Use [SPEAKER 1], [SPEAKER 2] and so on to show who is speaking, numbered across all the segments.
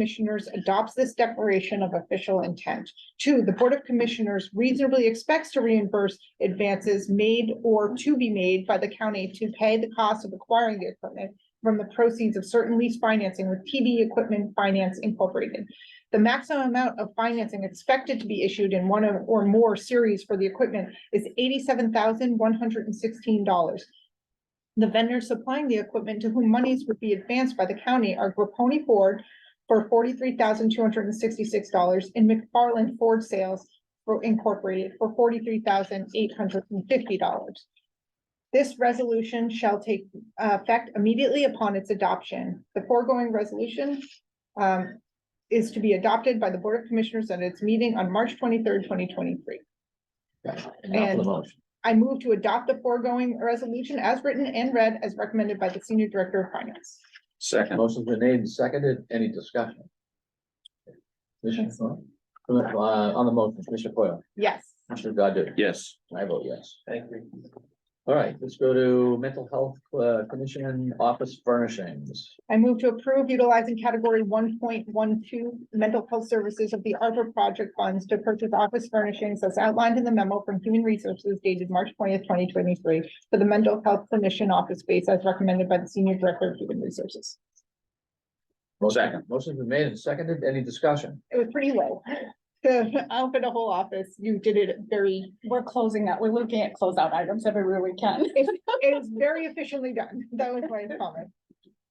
[SPEAKER 1] Commissioners adopts this declaration of official intent. Two, the Board of Commissioners reasonably expects to reimburse advances made or to be made by the county to pay the cost of acquiring the equipment from the proceeds of certain lease financing with TD Equipment Finance Incorporated. The maximum amount of financing expected to be issued in one of- or more series for the equipment is eighty-seven thousand one hundred and sixteen dollars. The vendors supplying the equipment to whom monies would be advanced by the county are Grapponi Ford for forty-three thousand two hundred and sixty-six dollars and McFarland Ford Sales for- Incorporated for forty-three thousand eight hundred and fifty dollars. This resolution shall take uh, effect immediately upon its adoption. The foregoing resolution um, is to be adopted by the Board of Commissioners at its meeting on March twenty-third, twenty twenty-three.
[SPEAKER 2] Now for
[SPEAKER 1] And-
[SPEAKER 2] the motion.
[SPEAKER 1] I move to adopt the foregoing resolution as written and read as recommended by the Senior Director of Finance.
[SPEAKER 3] Second.
[SPEAKER 2] Motion's been made and seconded. Any discussion? Commissioner, Coyle? Commissioner, uh, on the motion, Commissioner Coyle,
[SPEAKER 1] Yes.
[SPEAKER 2] Commissioner Godu,
[SPEAKER 3] Yes.
[SPEAKER 2] I vote yes.
[SPEAKER 3] Thank you.
[SPEAKER 2] All right, let's go to mental health, uh, commission office furnishings.
[SPEAKER 1] I move to approve utilizing category one point one two mental health services of the Arbor project funds to purchase office furnishings as outlined in the memo from Human Resources dated March twentieth, twenty twenty-three for the mental health clinician office space as recommended by the Senior Director of Human Resources.
[SPEAKER 2] Motion-
[SPEAKER 3] Second.
[SPEAKER 2] Motion's been made and seconded. Any discussion?
[SPEAKER 1] It was pretty low. The outfit a whole office, you did it very,
[SPEAKER 4] We're closing out, we're looking at closeout items everywhere we can.
[SPEAKER 1] it was very efficiently done. That was my comment.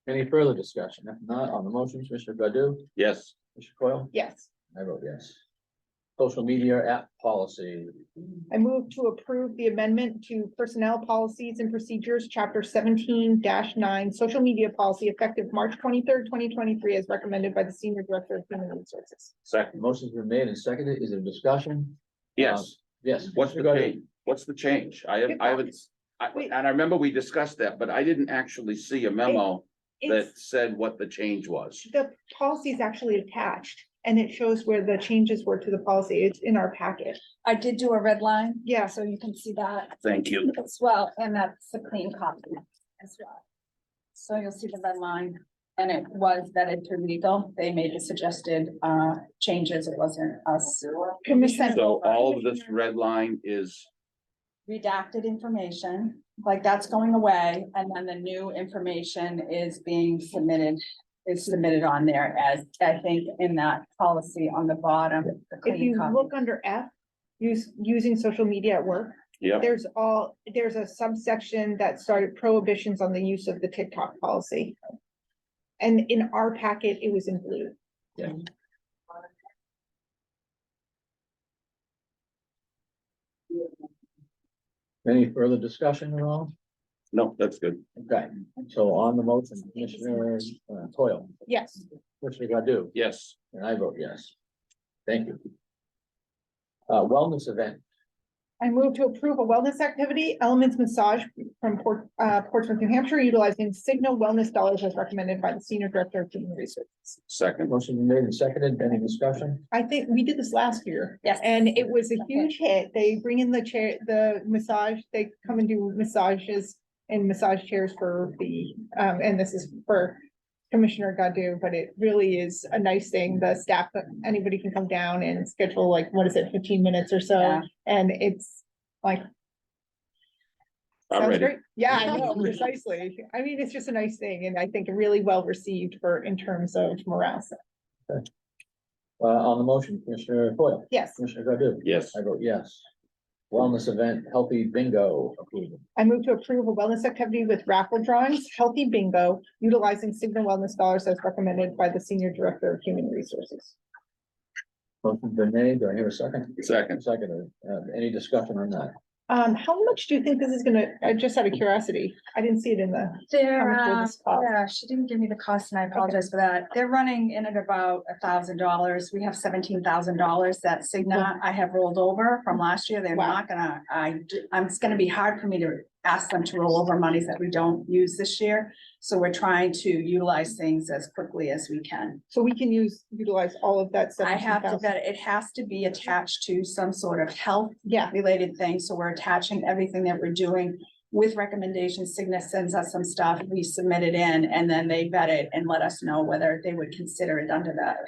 [SPEAKER 2] Any further discussion? If not, on the motion, Commissioner Godu,
[SPEAKER 3] Yes.
[SPEAKER 2] Commissioner Coyle,
[SPEAKER 1] Yes.
[SPEAKER 2] I vote yes. Social media app policy.
[SPEAKER 1] I move to approve the amendment to Personnel Policies and Procedures, Chapter seventeen nine, Social Media Policy effective March twenty-third, twenty twenty-three, as recommended by the Senior Director of Human Resources.
[SPEAKER 3] Second.
[SPEAKER 2] Motion's been made and seconded. Is there discussion?
[SPEAKER 3] Yes.
[SPEAKER 2] Yes.
[SPEAKER 3] What's the
[SPEAKER 2] Commissioner Godu?
[SPEAKER 3] change? What's the change? I have, I haven't, I,
[SPEAKER 1] Wait.
[SPEAKER 3] and I remember we discussed that, but I didn't actually see a memo
[SPEAKER 1] It's,
[SPEAKER 3] that said what the change was.
[SPEAKER 1] the policy is actually attached, and it shows where the changes were to the policy. It's in our packet.
[SPEAKER 4] I did do a red line,
[SPEAKER 1] Yes,
[SPEAKER 4] so you can see that
[SPEAKER 3] Thank you.
[SPEAKER 4] as well, and that's a clean copy as well. So you'll see the red line, and it was vetted through legal. They made the suggested uh changes. It wasn't us.
[SPEAKER 1] Commissioner-
[SPEAKER 3] So all of this
[SPEAKER 1] uh,
[SPEAKER 3] red line is,
[SPEAKER 4] redacted information, like that's going away, and then the new information is being submitted. Is submitted on there as, I think, in that policy on the bottom. the
[SPEAKER 1] if
[SPEAKER 4] clean
[SPEAKER 1] you
[SPEAKER 4] copy.
[SPEAKER 1] look under F, use, using social media at work,
[SPEAKER 3] yeah,
[SPEAKER 1] there's all, there's a subsection that started prohibitions on the use of the TikTok policy. And in our packet, it was in blue.
[SPEAKER 2] Any further discussion at all?
[SPEAKER 3] no, that's good.
[SPEAKER 2] Okay, so on the motion, Commissioner uh, Coyle,
[SPEAKER 1] Yes,
[SPEAKER 2] Commissioner Godu,
[SPEAKER 3] Yes.
[SPEAKER 2] and I vote yes. Thank you. Uh, wellness event,
[SPEAKER 1] I move to approve a wellness activity, Elements Massage from Port, uh, Portsmouth, New Hampshire, utilizing Signal Wellness Dollars as recommended by the Senior Director of Human Resources.
[SPEAKER 3] Second.
[SPEAKER 2] motion made and seconded, any discussion?
[SPEAKER 1] I think we did this last year.
[SPEAKER 4] Yes.
[SPEAKER 1] And it was a huge hit. They bring in the chair, the massage, they come and do massages and massage chairs for the, um, and this is for Commissioner Godu, but it really is a nice thing. The staff, anybody can come down and schedule like, what is it, fifteen minutes or so?
[SPEAKER 4] Yeah.
[SPEAKER 1] And it's like,
[SPEAKER 3] I'm
[SPEAKER 1] sounds
[SPEAKER 3] ready.
[SPEAKER 1] great. Yeah, I know, precisely. I mean, it's just a nice thing and I think really well received for, in terms of morale. So,
[SPEAKER 2] Uh, on the motion, Commissioner Coyle,
[SPEAKER 1] Yes.
[SPEAKER 2] Commissioner Godu,
[SPEAKER 3] Yes.
[SPEAKER 2] I vote yes. Wellness event, healthy bingo approval,
[SPEAKER 1] I move to approve a wellness activity with raffle drawings, healthy bingo, utilizing Cigna Wellness dollars as recommended by the Senior Director of Human Resources.
[SPEAKER 2] motion's been made, do I hear a second?
[SPEAKER 3] Second.
[SPEAKER 2] Second, uh, any discussion on that?
[SPEAKER 1] Um, how much do you think this is gonna, I just out of curiosity, I didn't see it in the,
[SPEAKER 4] They're,
[SPEAKER 1] How much will
[SPEAKER 4] uh,
[SPEAKER 1] this cost?
[SPEAKER 4] yeah, she didn't give me the cost and I apologize for that. They're running in at about a thousand dollars. We have seventeen thousand dollars that Cigna I have rolled over from last year. They're
[SPEAKER 1] Mm-hmm. Wow.
[SPEAKER 4] not gonna, I, d- I'm, it's gonna be hard for me to ask them to roll over monies that we don't use this year. So we're trying to utilize things as quickly as we can.
[SPEAKER 1] so we can use, utilize all of that
[SPEAKER 4] I
[SPEAKER 1] seventeen
[SPEAKER 4] have to,
[SPEAKER 1] thousand.
[SPEAKER 4] vet it It has to be attached to some sort of health
[SPEAKER 1] Yeah,
[SPEAKER 4] related things, so we're attaching everything that we're doing. with recommendations, Cigna sends us some stuff, we submit it in, and then they vet it and let us know whether they would consider it under that